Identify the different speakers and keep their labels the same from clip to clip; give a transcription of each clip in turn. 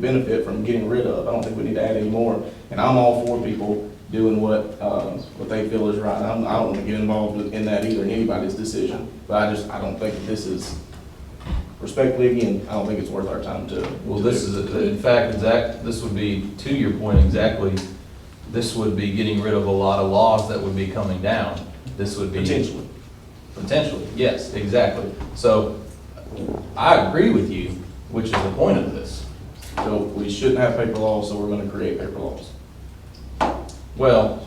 Speaker 1: benefit from getting rid of. I don't think we need to add any more. And I'm all for people doing what, uh, what they feel is right. I'm, I don't want to get involved in- in that either, in anybody's decision. But I just, I don't think this is, respectfully, again, I don't think it's worth our time to.
Speaker 2: Well, this is, a- in fact, exact, this would be, to your point exactly, this would be getting rid of a lot of laws that would be coming down. This would be.
Speaker 1: Potentially.
Speaker 2: Potentially, yes, exactly. So I agree with you, which is the point of this.
Speaker 1: So we shouldn't have paper laws, so we're going to create paper laws.
Speaker 2: Well,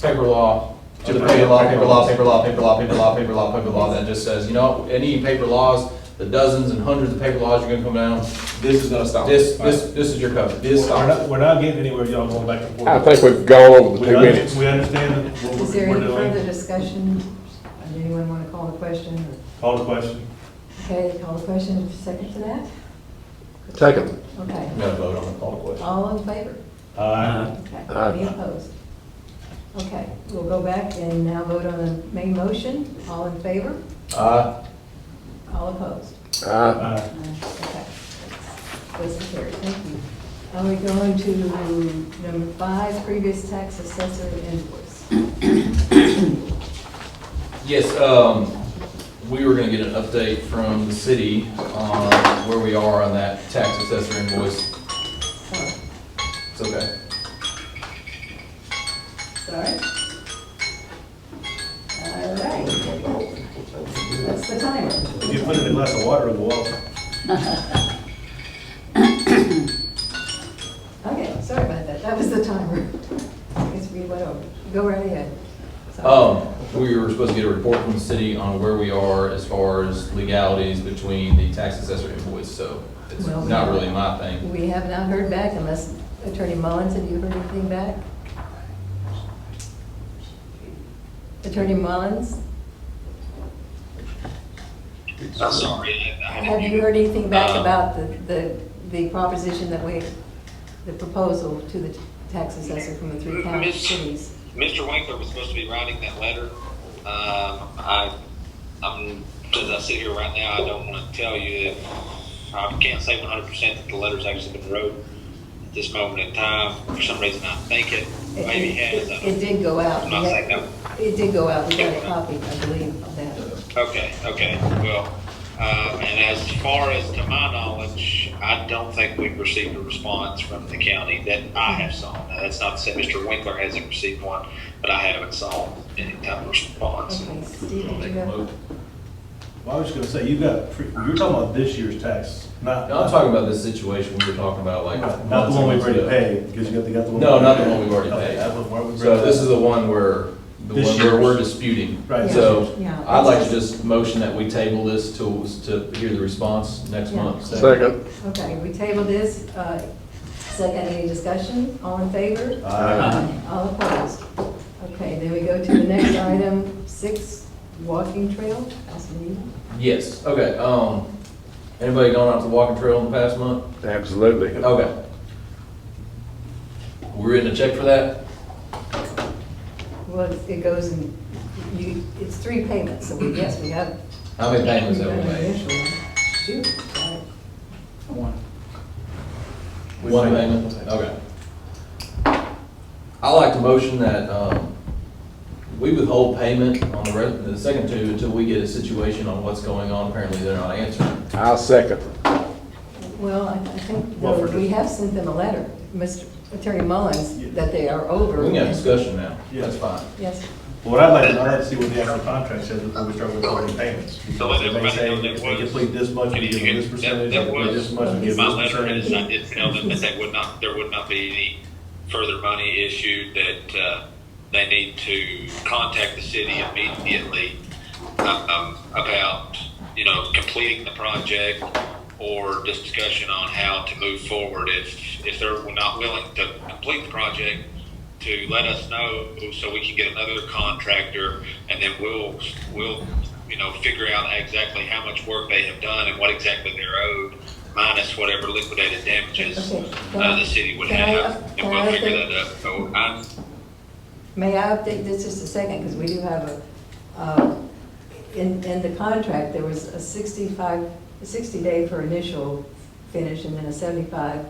Speaker 2: paper law,
Speaker 1: Just
Speaker 2: other paper law,
Speaker 1: paper
Speaker 2: paper
Speaker 1: law.
Speaker 2: law, paper law, paper law, paper law, paper law, paper law, that just says, you know, any paper laws, the dozens and hundreds of paper laws you're gonna come down,
Speaker 1: This is going to stop.
Speaker 2: this, this, this is your cover.
Speaker 1: This
Speaker 3: We're
Speaker 1: stops.
Speaker 3: not, we're not getting anywhere, y'all going back and forth.
Speaker 4: I think we've gone over the
Speaker 3: We
Speaker 4: two minutes.
Speaker 3: under- we understand what
Speaker 5: Is
Speaker 3: we're
Speaker 5: there
Speaker 3: we're
Speaker 5: any further
Speaker 3: doing.
Speaker 5: discussion? Does anyone want to call the question? or-
Speaker 3: Call the question.
Speaker 5: Okay, call the question, Is there a second to that?
Speaker 4: Second.
Speaker 5: Okay,
Speaker 2: No vote on the call to question.
Speaker 5: all in favor?
Speaker 3: Uh,
Speaker 5: Okay,
Speaker 4: Aye.
Speaker 5: any opposed? Okay, we'll go back and now vote on the main motion, all in favor,
Speaker 2: Uh,
Speaker 5: all opposed?
Speaker 4: Aye.
Speaker 3: uh,
Speaker 5: Okay. Those are carried, thank you. Are we going to number five, previous tax assessor invoice?
Speaker 2: Yes, um, we were gonna get an update from the city on where we are on that tax assessor invoice.
Speaker 5: Sorry.
Speaker 2: It's okay.
Speaker 5: Sorry. All right. That's the timer.
Speaker 3: if you put it in a glass of water on the wall,
Speaker 5: Okay, sorry about that. That was the timer. I guess we went over. Go right ahead. Sorry.
Speaker 2: Um, we were supposed to get a report from the city on where we are as far as legalities between the tax assessor invoice, so it's
Speaker 5: Well, we-
Speaker 2: not really my thing.
Speaker 5: We have not heard back unless Attorney Mullins, have you heard anything back? Attorney Mullins,
Speaker 6: I'm sorry. I had
Speaker 5: have you
Speaker 6: muted.
Speaker 5: heard anything back
Speaker 6: Uh,
Speaker 5: about the, the the proposition that we, the proposal to the tax assessor from the three county
Speaker 6: Miss-
Speaker 5: cities?
Speaker 6: Mr. Winkler was supposed to be writing that letter. Um, I, I'm, as I sit here right now, I don't want to tell you that, I can't say one hundred percent that the letter's actually been wrote at this moment in time. For some reason, I think it, maybe it has. I
Speaker 5: It-
Speaker 6: don't-
Speaker 5: It did go out.
Speaker 6: I'm not
Speaker 5: We
Speaker 6: saying
Speaker 5: got-
Speaker 6: no.
Speaker 5: It did go out, we got a copy, I believe, of that.
Speaker 6: Okay, okay, well, uh, and as far as to my knowledge, I don't think we've received a response from the county that I have saw. Now, that's not to say Mr. Winkler hasn't received one, but I haven't saw any type of response.
Speaker 5: Okay, Steve, did you
Speaker 2: No,
Speaker 5: go?
Speaker 3: well, I was just gonna say, you got, pre- you're talking about this year's tax, not,
Speaker 2: I'm
Speaker 3: not
Speaker 2: talking about this situation we were talking about like.
Speaker 3: the one we've
Speaker 2: months
Speaker 3: already
Speaker 2: ago.
Speaker 3: paid, because you got, they got the one.
Speaker 2: No, not the one we've already
Speaker 3: Okay,
Speaker 2: paid.
Speaker 3: that's what- why we bring
Speaker 2: So
Speaker 3: that
Speaker 2: this
Speaker 3: up.
Speaker 2: is the one where, the
Speaker 3: This
Speaker 2: one where we're
Speaker 3: year's.
Speaker 2: disputing.
Speaker 3: Right.
Speaker 2: So
Speaker 5: Yeah.
Speaker 2: I'd like to just motion that we table this to, to hear the response next
Speaker 5: Yeah.
Speaker 2: month.
Speaker 4: Second.
Speaker 5: Okay, we table this, uh, second, any discussion, all in favor?
Speaker 3: Aye.
Speaker 5: All opposed? Okay, then we go to the next item, six, walking trail, Councilman Neal.
Speaker 2: Yes, okay, um, anybody gone out to the walking trail in the past month?
Speaker 4: Absolutely.
Speaker 2: Okay. We're in a check for that?
Speaker 5: Well, it goes in, you, it's three payments, so we, yes, we have.
Speaker 2: How many payments have we made?
Speaker 5: Initial one. Shoot, sorry.
Speaker 1: We
Speaker 2: One
Speaker 1: pay-
Speaker 2: payment, okay. I like to motion that, um, we withhold payment on the re the second two until we get a situation on what's going on. Apparently, they're not answering.
Speaker 4: I'll second.
Speaker 5: Well, I I think,
Speaker 3: Well,
Speaker 5: though,
Speaker 3: for-
Speaker 5: we have sent them a letter, Mr. Attorney
Speaker 3: Yeah. Oh,
Speaker 5: Mullins, that they are over.
Speaker 2: We can have discussion now, that's
Speaker 3: Yeah.
Speaker 2: fine.
Speaker 5: Yes,
Speaker 3: Well, What I'd like to, I'd like to see what the actual contract says before we start recording payments.
Speaker 6: So let
Speaker 3: Because they
Speaker 6: everybody
Speaker 3: say
Speaker 6: know that
Speaker 3: If they
Speaker 6: was-
Speaker 3: complete this much, we give them this
Speaker 6: That-
Speaker 3: percentage,
Speaker 6: that
Speaker 3: if they complete this much, we give
Speaker 6: My
Speaker 3: them this
Speaker 6: letter is, I
Speaker 3: percentage.
Speaker 6: did tell them that they would not, there would not be any further money issued, that, uh, they need to contact the city immediately, um, about, you know, completing the project or just discussion on how to move forward. If, if they're not willing to complete the project, to let us know so we can get another contractor and then we'll, we'll, you know, figure out exactly how much work they have done and what exactly they're owed minus whatever liquidated damages
Speaker 5: Okay.
Speaker 6: uh, the city would
Speaker 5: Can I-
Speaker 6: have.
Speaker 5: can
Speaker 6: And
Speaker 5: I-
Speaker 6: we'll figure that out. So I'm,
Speaker 5: may I update this just a second, because we do have a, uh, in, in the contract, there was a 65, 60 day for initial finish, and then a seventy-five